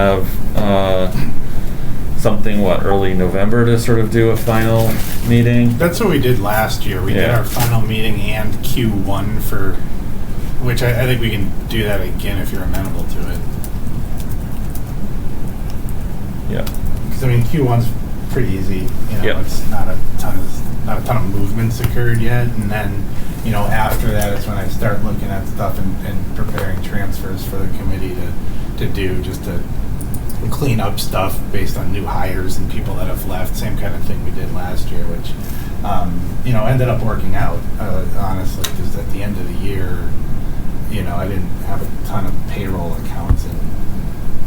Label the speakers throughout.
Speaker 1: have uh, something, what, early November to sort of do a final meeting?
Speaker 2: That's what we did last year. We did
Speaker 1: Yeah.
Speaker 2: our final meeting and Q1 for, which I, I think we can do that again if you're amenable to it.
Speaker 1: Yeah.
Speaker 2: Because I mean, Q1's pretty easy. You know,
Speaker 1: Yep.
Speaker 2: it's not a ton of not a ton of movements occurred yet, and then you know after that is when I start looking at stuff and, and preparing transfers for the committee to to do just to clean up stuff based on new hires and people that have left. Same kind of thing we did last year, which um, you know ended up working out uh, honestly. Because at the end of the year, you know, I didn't have a ton of payroll accounts in,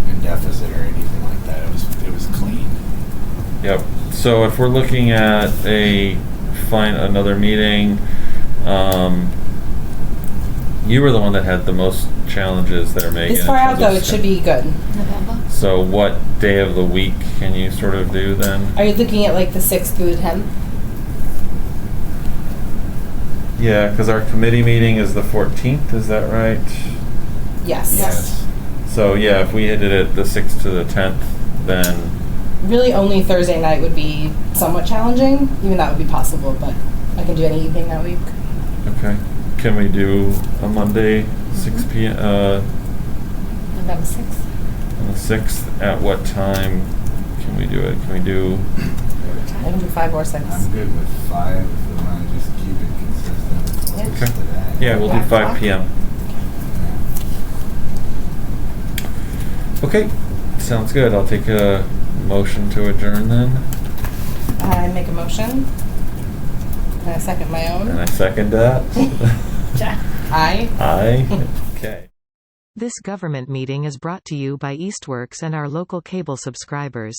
Speaker 2: in deficit or anything like that. It was it was clean.
Speaker 1: Yep. So if we're looking at a find another meeting, um, you were the one that had the most challenges there, Megan.
Speaker 3: This far
Speaker 1: in
Speaker 3: out
Speaker 1: terms of
Speaker 3: though, it should be good.
Speaker 4: November?
Speaker 1: So what day of the week can you sort of do then?
Speaker 3: Are you looking at like the sixth through the tenth?
Speaker 1: yeah, because our committee meeting is the 14th. Is that right?
Speaker 3: Yes.
Speaker 4: Yes.
Speaker 1: So yeah, if we did it the 6th to the 10th, then
Speaker 3: Really, only Thursday night would be somewhat challenging. Even that would be possible, but I can do any evening that week.
Speaker 1: okay. Can we do a Monday 6 p.m. Uh,
Speaker 4: November 6th?
Speaker 1: on the 6th? At what time can we do it? Can we do?
Speaker 4: What
Speaker 3: I can
Speaker 4: time?
Speaker 3: do five or six.
Speaker 2: I'm good with five if we want to just keep it consistent. with what we
Speaker 1: Okay.
Speaker 2: did at.
Speaker 1: Yeah, we'll do 5 p.m. Okay, sounds good. I'll take a motion to adjourn then,
Speaker 3: I make a motion. And I second my own.
Speaker 1: and I second that.
Speaker 4: Ja-
Speaker 3: Aye.
Speaker 1: Aye. Okay.
Speaker 5: This government meeting is brought to you by Eastworks and our local cable subscribers.